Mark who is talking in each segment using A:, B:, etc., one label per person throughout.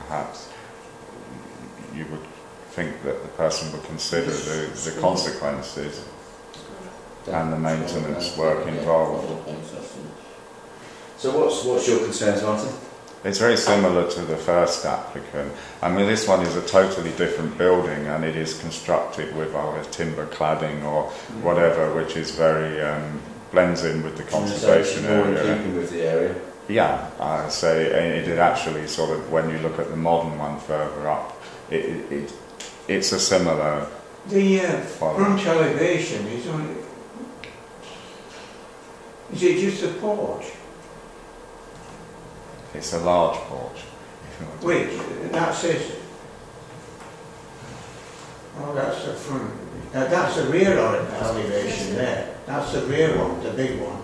A: perhaps you would think that the person would consider the, the consequences and the maintenance work involved.
B: So what's what's your concerns, Martin?
A: It's very similar to the first applicant. I mean, this one is a totally different building and it is constructed with either timber cladding or whatever, which is very, um, blends in with the conservation
B: more in
A: area.
B: keeping with the area.
A: Yeah, I say it, it actually sort of when you look at the modern one further up, it, it, it it's a similar
C: The uh,
A: follow.
C: front elevation is only. Is it just a porch?
A: It's a large porch. if you want to-
C: Wait, that says. Oh, that's the front. Now, that's the rear elevation there. That's the rear one, the big one.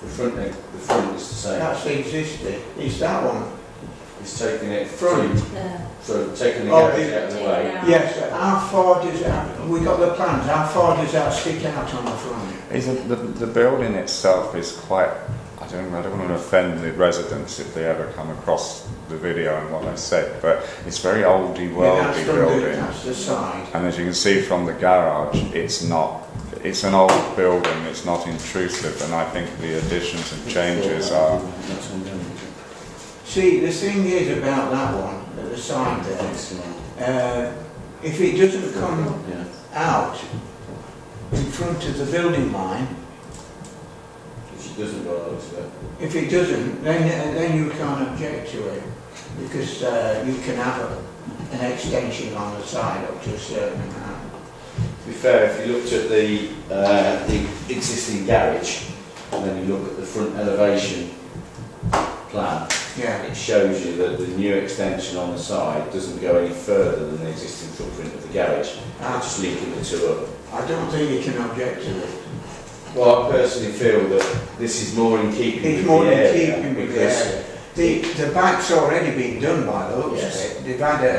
B: The front neck, the front is the same.
C: That's existing. It's that one.
B: It's taking it
C: Front.
B: through,
D: Uh,
B: sort of taking the
C: Oh,
B: garage
C: the-
B: out of the way.
C: Yes, how far does that, we got the plans, how far does that stick out on the front?
A: Is it, the, the building itself is quite. I don't. I don't want to offend the residents if they ever come across the video and what I said, but it's very oldy,
C: that's
A: worldy
C: from the-
A: building.
C: That's the side.
A: And as you can see from the garage, it's not, it's an old building, it's not intrusive, and I think the additions and changes are.
B: That's one down, isn't
C: See, the thing is about that one, at the side
B: it?
C: there,
B: That's the one.
C: uh, if it doesn't come
B: Yeah.
C: out in front of the building line,
B: She doesn't go out there.
C: if it doesn't, then, then you can't object to it, because, uh, you can have a, an extension on the side up to a certain amount.
B: To be fair, if you looked at the, uh, the existing garage, and then you look at the front elevation plan,
C: Yeah,
B: it shows you that the new extension on the side doesn't go any further than the existing footprint of the garage,
C: I,
B: just linking the two up.
C: I don't think you can object to it.
B: Well, I personally feel that this is more in keeping
C: It's
B: with
C: more
B: the
C: in
B: area.
C: keeping with the
B: because
C: area. The, the back's already been done by the looks
B: Yes.
C: of it. They've had a,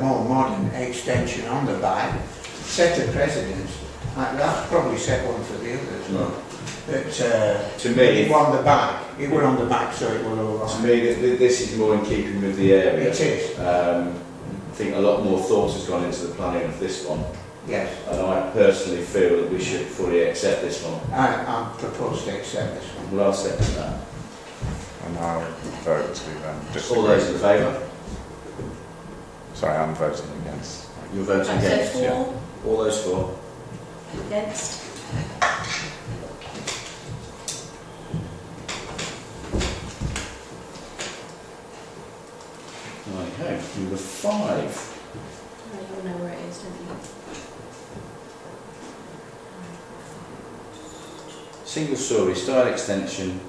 C: a more modern extension on the back, set a precedence. Like, that's probably set one for the others.
B: Right.
C: But uh,
B: To
C: it
B: me,
C: were on the back. It were on the back, so it were
B: to
C: all right.
B: me, th- th- this is more in keeping with the area.
C: It is,
B: Um, I think a lot more thought has gone into the planning of this one.
C: yes.
B: And I personally feel that we should fully accept this one.
C: I, I propose to accept this one.
B: Well, I'll second that.
A: And I'll vote to um,
B: All
A: disagree.
B: those in favour?
A: Sorry, I'm voting against.
B: You're voting against? yeah.
D: for,
B: All those for?
D: against,
B: Okay, number five.
D: I don't know where it is, don't you?
B: Single story style extension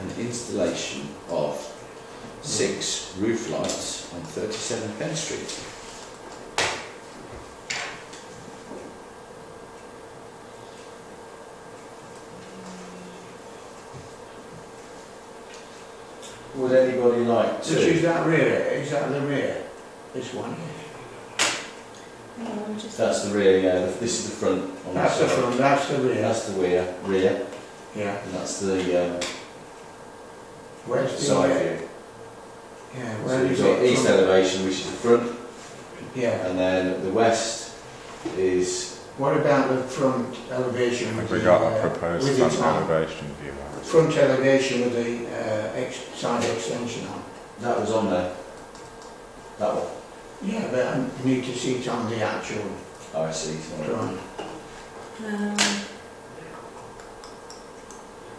B: and installation of six roof lights on 37 Penn Street. Would anybody like
C: Which is that rear? Is that the rear? This one?
D: Hang on, just-
B: That's the rear, yeah. the- This is the front. on the
C: That's the
B: side.
C: front, that's the rear.
B: Oh, That's the rear, rear,
C: Yeah.
B: and that's the um,
C: Where's the
B: side
C: rear?
B: view.
C: Yeah,
B: So
C: where
B: we've
C: is
B: got
C: it?
B: east
C: from?
B: elevation, which is the front,
C: Yeah.
B: and then the west is
C: What about the front elevation?
A: Have
C: with
A: we
C: the,
A: got a
C: uh,
A: proposed
C: with the
A: front
C: top?
A: elevation view? I would-
C: Front elevation with the uh, ex- side extension on.
B: that was on there. That one.
C: Yeah, but I need to see it on the actual
B: Oh, I see. Sorry.
C: drawing.
D: Um,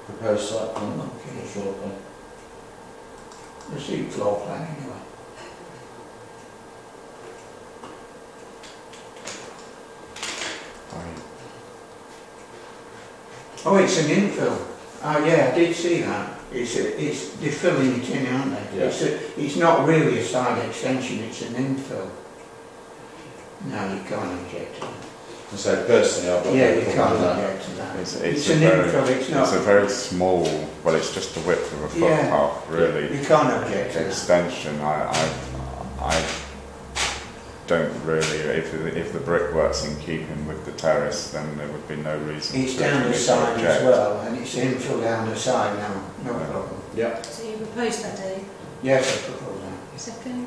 B: Proposed site plan.
C: Okay.
B: Not sure.
C: The seat floor plan anyway.
A: I-
C: Oh, it's an infill. Oh yeah, I did see that. It's a, it's they're filling it in, aren't they?
B: Yeah.
C: It's a, it's not really a side extension. It's an infill. No, you can't object to that.
B: And so personally, I've got
C: Yeah,
B: no
C: you
B: problem
C: can't
B: with that.
C: object to that.
A: It's,
C: It's
A: it's, a
C: an
A: very,
C: infill. It's
A: it's a
C: not.
A: very small, well, it's just the width of a
C: Yeah.
A: footpath, really.
C: You can't object to that.
A: extension, I, I, I don't really, if, the- if the brickwork's in keeping with the terrace, then there would be no reason
C: It's
A: to
C: down the
A: really
C: side as
A: object.
C: well, and it's infill down the side now, no
A: Yeah.
C: problem.
B: Yeah.
D: so you proposed that, Dave,
C: Yes, I propose that.
D: second?